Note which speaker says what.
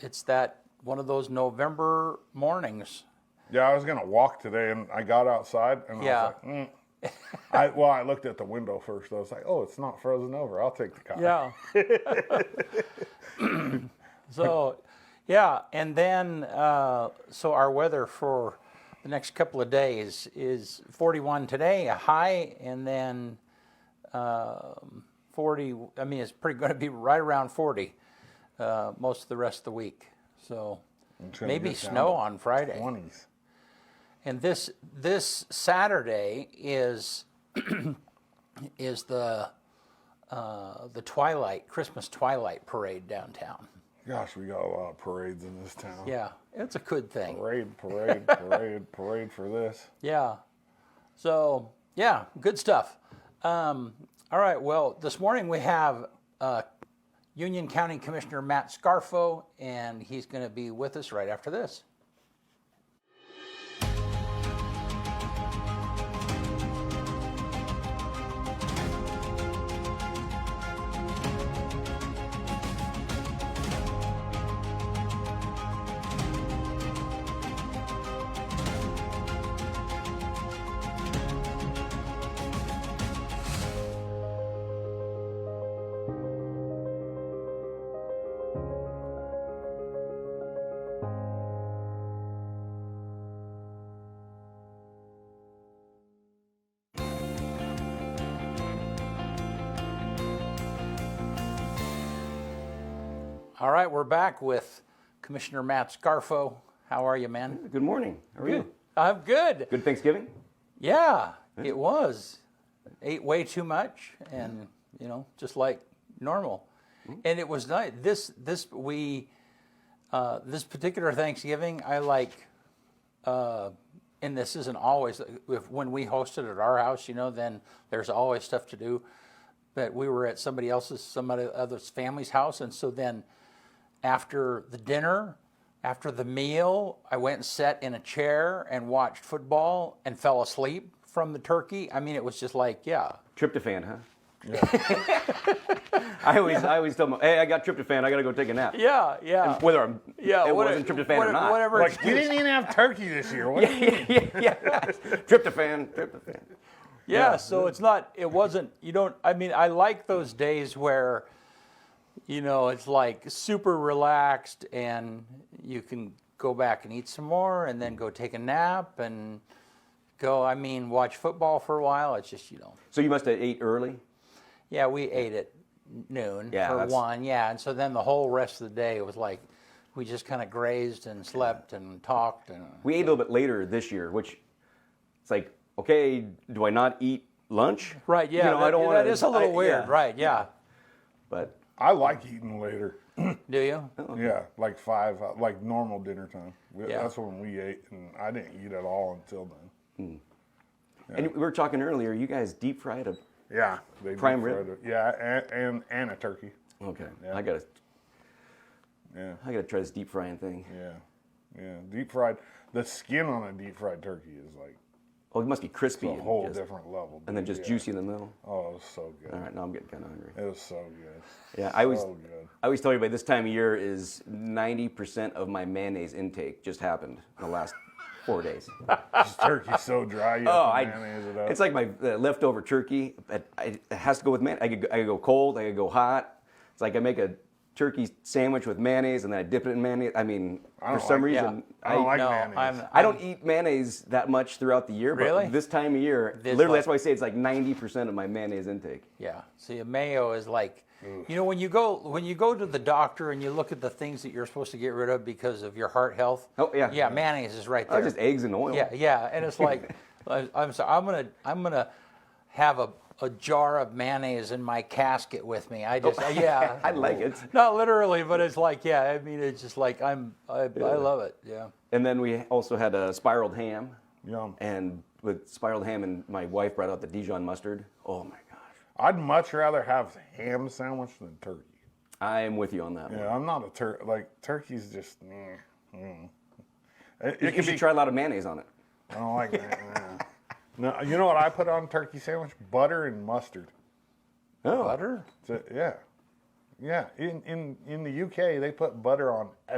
Speaker 1: it's that one of those November mornings.
Speaker 2: Yeah, I was gonna walk today, and I got outside, and
Speaker 1: Yeah.
Speaker 2: I was like, mm. I, well, I looked at the window first. I was like, oh, it's not frozen over. I'll take the car.
Speaker 1: Yeah. so, yeah, and then uh, so our weather for the next couple of days is 41 today, a high, and then um, 40. I mean, it's pretty going to be right around 40 uh, most of the rest of the week. So
Speaker 2: It's gonna
Speaker 1: maybe
Speaker 2: get down
Speaker 1: snow
Speaker 2: to
Speaker 1: on Friday.
Speaker 2: Twenties.
Speaker 1: And this this Saturday is is the uh, the twilight Christmas twilight parade downtown.
Speaker 2: Gosh, we got a lot of parades in this town.
Speaker 1: Yeah, it's a good thing.
Speaker 2: Parade, parade, parade, parade for this.
Speaker 1: Yeah. So yeah, good stuff. Um, all right. Well, this morning we have uh, Union County Commissioner Matt Scarfo, and he's going to be with us right after this. All right, we're back with Commissioner Matt Scarfo. How are you, man?
Speaker 3: Good morning. How are you?
Speaker 1: I'm good.
Speaker 3: Good Thanksgiving?
Speaker 1: Yeah, it was. Ate way too much, and you know, just like normal. And it was nice. This this we uh, this particular Thanksgiving, I like. Uh, and this isn't always if, when we hosted at our house, you know. Then there's always stuff to do. But we were at somebody else's, somebody other's family's house, and so then after the dinner, after the meal, I went and sat in a chair and watched football and fell asleep from the turkey. I mean, it was just like, yeah,
Speaker 3: Tryptophan, huh? I always I always tell them, hey, I got tryptophan, I gotta go take a nap.
Speaker 1: yeah, yeah,
Speaker 3: Whether I'm
Speaker 1: yeah.
Speaker 3: it
Speaker 1: what-
Speaker 3: wasn't tryptophan
Speaker 1: what-
Speaker 3: or not.
Speaker 1: whatever.
Speaker 2: Like we
Speaker 1: excuse-
Speaker 2: didn't even have turkey this year. What?
Speaker 3: yeah, yeah. Tryptophan, tryptophan.
Speaker 1: yeah,
Speaker 2: Yeah.
Speaker 1: so it's not it wasn't you don't i mean i like those days where you know it's like super relaxed and you can go back and eat some more and then go take a nap and go i mean watch football for a while it's just you know
Speaker 3: So you must have ate early?
Speaker 1: yeah we ate at noon
Speaker 3: Yeah,
Speaker 1: for
Speaker 3: that's-
Speaker 1: one yeah and so then the whole rest of the day was like we just kind of grazed and slept and talked and
Speaker 3: We ate a little bit later this year, which it's like, okay, do I not eat lunch?
Speaker 1: right yeah
Speaker 3: You know,
Speaker 1: that,
Speaker 3: I don't want
Speaker 1: that is a little weird right yeah
Speaker 3: But
Speaker 2: I like eating later.
Speaker 1: do you
Speaker 2: Yeah, like five, uh, like normal dinner time. We-
Speaker 1: Yeah.
Speaker 2: That's when we ate, and I didn't eat at all until then.
Speaker 3: and we were talking earlier, you guys deep fried a
Speaker 2: Yeah, they
Speaker 3: Prime
Speaker 2: deep
Speaker 3: rib?
Speaker 2: fried it. Yeah, and, and and a turkey.
Speaker 3: Okay. I gotta
Speaker 2: Yeah,
Speaker 3: I gotta try this deep frying thing.
Speaker 2: yeah, yeah. Deep fried. The skin on a deep fried turkey is like
Speaker 3: Oh, it must be crispy.
Speaker 2: a
Speaker 3: and
Speaker 2: whole
Speaker 3: just-
Speaker 2: different level.
Speaker 3: and then
Speaker 2: dude.
Speaker 3: just
Speaker 2: Yeah.
Speaker 3: juicy in the middle.
Speaker 2: Oh, it was so good.
Speaker 3: All right, now I'm getting kind of hungry.
Speaker 2: It was so good.
Speaker 3: Yeah, I always,
Speaker 2: So good.
Speaker 3: I always tell everybody this time of year is 90% of my mayonnaise intake just happened in the last four days. Oh,
Speaker 2: This turkey's so dry. You
Speaker 3: I,
Speaker 2: have to mayonnaise it up.
Speaker 3: it's like my uh, leftover turkey. I, I, it has to go with mayonnaise. I could, go- I could go cold, I could go hot. It's like I make a turkey sandwich with mayonnaise and then I dip it in mayonnaise. I mean,
Speaker 2: don't
Speaker 3: for some
Speaker 2: like-
Speaker 3: reason,
Speaker 2: I don't like
Speaker 1: no
Speaker 2: mayonnaise.
Speaker 1: i'm
Speaker 3: I don't eat mayonnaise that much throughout the year, but
Speaker 1: Really?
Speaker 3: this time of year,
Speaker 1: This like-
Speaker 3: literally, that's why I say it's like 90% of my mayonnaise intake.
Speaker 1: Yeah. See, a mayo is like, you know, when you go when you go to the doctor and you look at the things that you're supposed to get rid of because of your heart health.
Speaker 3: Oh, yeah.
Speaker 1: Yeah, mayonnaise is right
Speaker 3: Oh,
Speaker 1: there.
Speaker 3: just eggs and oil.
Speaker 1: yeah, yeah, and it's like, I- I'm sorry, I'm gonna I'm gonna have a, a jar of mayonnaise in my casket with me. Oh. I just yeah.
Speaker 3: I like it.
Speaker 1: Not literally, but it's like yeah. I mean, it's just like I'm I, I love it. Yeah.
Speaker 3: And then we also had a spiraled ham.
Speaker 2: Yum.
Speaker 3: And with spiraled ham, and my wife brought out the Dijon mustard. Oh my gosh.
Speaker 2: I'd much rather have ham sandwich than turkey.
Speaker 3: I am with you on that one.
Speaker 2: Yeah, I'm not a tur like turkey's just. Mm, mm. It,
Speaker 3: You,
Speaker 2: it can
Speaker 3: should
Speaker 2: be.
Speaker 3: try a lot of mayonnaise on it.
Speaker 2: I don't like that. no, you know what I put on turkey sandwich? Butter and mustard.
Speaker 3: Oh.
Speaker 1: Butter.
Speaker 2: So, yeah, yeah. In in in the UK, they put butter on